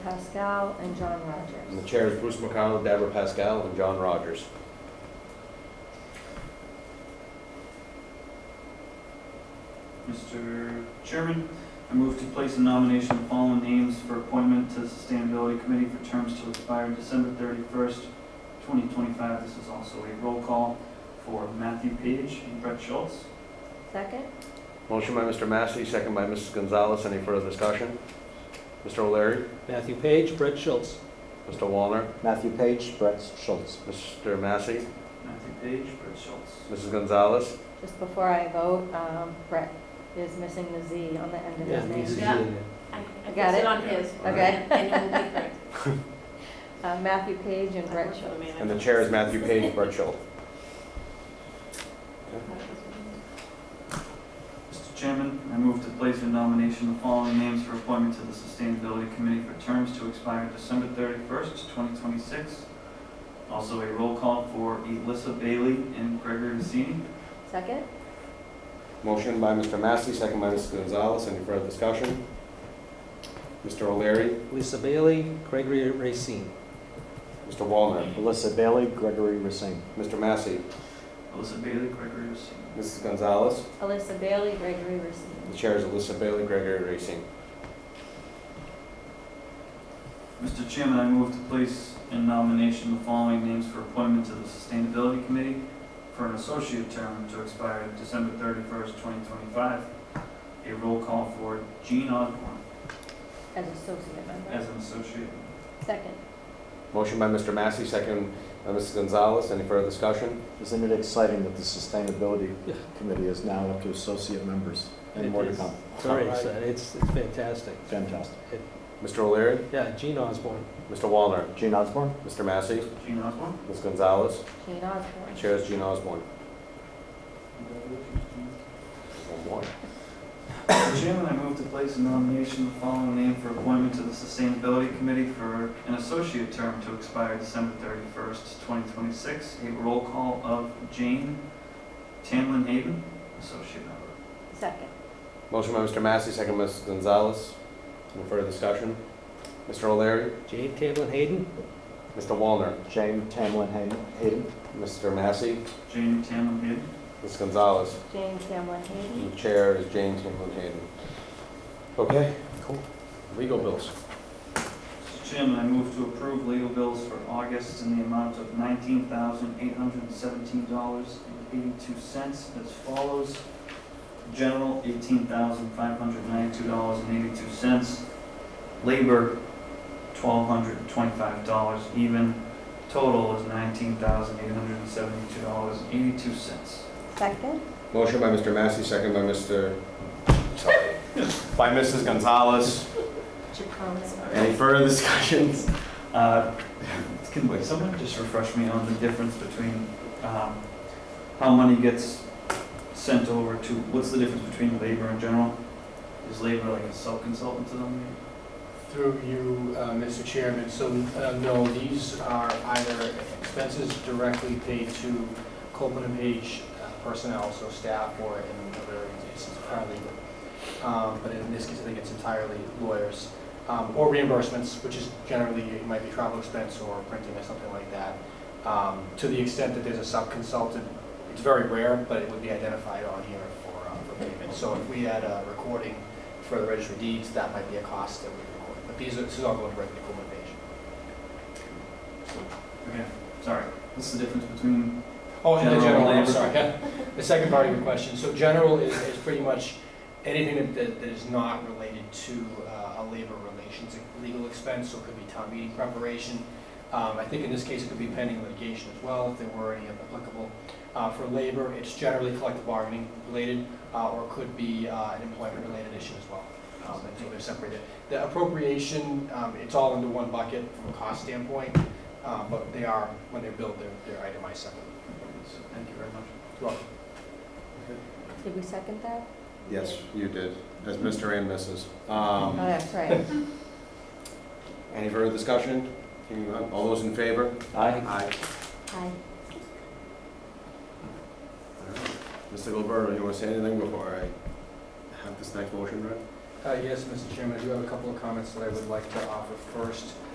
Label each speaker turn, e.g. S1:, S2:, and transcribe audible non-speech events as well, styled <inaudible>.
S1: Pascal and John
S2: And the
S1: Rogers.
S2: chair is Bruce McConnell, Deborah Pascal, and John Rogers.
S3: Mr. Chairman, I move to place in nomination the following names for appointment to the Sustainability Committee for terms to expire December thirty-first, twenty twenty-five. This is also a roll call for Matthew Page and Brett Schultz.
S1: Second?
S2: Motion by Mr. Massey, second by Mrs. Gonzalez. Any further discussion? Mr. O'Leary,
S4: Matthew Page, Brett Schultz.
S2: Mr. Wallner,
S5: Matthew Page, Brett Schultz.
S2: Mr. Massey,
S3: Matthew Page, Brett Schultz.
S2: Mrs. Gonzalez,
S1: Just before I vote, um, Brett is missing the Z on the end of his
S4: he's
S1: name.
S6: Yeah.
S4: usually-
S6: I
S1: I
S6: I
S1: got
S6: fixed
S1: it?
S6: it on his.
S1: <laughs> Okay.
S6: And it will be correct.
S5: <laughs>
S1: Uh, Matthew Page and
S6: I
S1: Brett
S6: worked for the
S1: Schultz.
S6: man.
S2: and the chair is Matthew Page Burchill.
S3: Mr. Chairman, I move to place in nomination the following names for appointment to the Sustainability Committee for terms to expire December thirty-first, twenty twenty-six. Also a roll call for Elissa Bailey and Gregory Rossini.
S1: Second?
S2: Motion by Mr. Massey, second by Mrs. Gonzalez. Any further discussion? Mr. O'Leary,
S4: Lisa Bailey, Gregory Racine.
S2: Mr. Wallner,
S5: Alyssa Bailey, Gregory Racine.
S2: Mr. Massey,
S3: Elissa Bailey, Gregory Rossini.
S2: Mrs. Gonzalez.
S1: Alyssa Bailey, Gregory
S2: The
S1: Racine.
S2: chair is Alyssa Bailey, Gregory Racing.
S3: Mr. Chairman, I move to place in nomination the following names for appointment to the Sustainability Committee for an associate term to expire December thirty-first, twenty twenty-five. A roll call for Jean Osborne
S1: As associate member.
S3: as an associate.
S1: Second.
S2: Motion by Mr. Massey, second by Mrs. Gonzalez. Any further discussion?
S5: Isn't it exciting that the Sustainability
S4: Yeah.
S5: Committee is now up to associate members? And more to come.
S4: Sorry, it's, uh, it's it's fantastic.
S5: Fantastic.
S2: Mr. O'Leary,
S4: Yeah, Gene Osborne.
S2: Mr. Wallner,
S5: Gene Osborne?
S2: Mr. Massey,
S3: Jean Osborne?
S2: Ms. Gonzalez,
S1: Jean Osborne.
S2: Chair is Gene Osborne. One more.
S3: Mr. Chairman, I move to place in nomination the following name for appointment to the Sustainability Committee for an associate term to expire December thirty-first, twenty twenty-six. A roll call of Jane Tamlin Hayden, associate member.
S1: Second.
S2: Motion by Mr. Massey, second by Mrs. Gonzalez. No further discussion. Mr. O'Leary,
S4: Jane Tamlin Hayden.
S2: Mr. Wallner,
S5: Jane Tamlin Hayden- Hayden?
S2: Mr. Massey,
S3: Jane Tamlin Hayden.
S2: Ms. Gonzalez.
S1: Jane Tamlin Hayden.
S2: And the Chair is James Hamlin Hayden. Okay, cool. Legal bills.
S3: Mr. Chairman, I move to approve legal bills for August in the amount of nineteen thousand eight hundred and seventeen dollars and eighty-two cents as follows. General, eighteen thousand five hundred ninety-two dollars and eighty-two cents. Labor, twelve hundred twenty-five dollars even. Total is nineteen thousand eight hundred and seventy-two dollars and eighty-two cents.
S5: Mm.
S1: Second.
S2: Motion by Mr. Massey, second by Mr., sorry, by Mrs. Gonzalez.
S1: Chacon.
S2: Any further discussions?
S3: Uh, Can wait, someone just refresh me on the difference between um, how money gets sent over to, what's the difference between labor and general? Is labor like a sub-consultant to them?
S7: Through you, uh, Mr. Chairman, so uh, no, these are either expenses directly paid to Copeland and Page uh, personnel, so staff or in other instances, paralegal. Um, But in this case, I think it's entirely lawyers. Um, Or reimbursements, which is generally, it might be travel expense or printing or something like that. Um, To the extent that there's a sub-consultant, it's very rare, but it would be identified on here for uh, for payment. So if we had a recording for the registry of deeds, that might be a cost that we record. But these are, this is all going directly to Coleman Page.
S3: Okay, sorry, what's the difference between,
S7: Oh, and the
S3: General
S7: general, I'm
S3: labor.
S7: sorry, yeah. The second part of your question, so general is, is pretty much anything that- that, that is not related to uh, a labor relations legal expense, so it could be town meeting preparation. Um, I think in this case, it could be pending litigation as well, if there were any applicable. Uh, For labor, it's generally collective bargaining related, uh, or could be uh, an employment-related issue as well. Um,
S3: Oh,
S7: And so they're separated. The appropriation, um, it's all into one bucket from a cost standpoint,
S3: um,
S7: uh, but they are, when they're billed, they're- they're itemized separately.
S3: thank you very much.
S7: You're welcome.
S1: Did we second that?
S2: Yes, you did, as Mr. and Mrs.
S1: Oh,
S2: Um,
S1: that's right.
S2: Any further discussion? Hearing none. All those in favor?
S5: Aye.
S1: Aye.
S2: Mr. Gilberto, you want to say anything before I have this next motion read?
S1: Uh, Yes, Mr. Chairman, I do have a couple of comments that I would like to offer first.